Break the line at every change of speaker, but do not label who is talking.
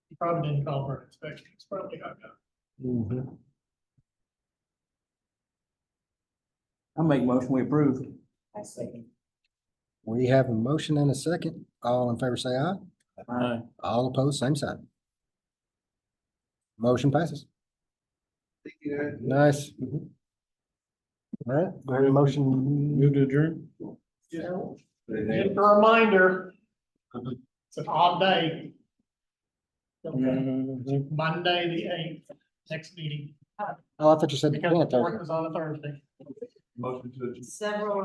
probably didn't call for an inspection, it's probably hung up.
Mm-hmm.
I make motion, we approve.
I see.
We have a motion and a second. All in favor, say aye. All opposed, same sign. Motion passes. Nice. All right, do I have a motion.
Move to adjourn?
Just just a reminder, it's an odd day. Okay,
Uh,
Monday, the eighth, next meeting,
Oh, I thought you said the
because the
tenth.
fourth is on a Thursday.
Several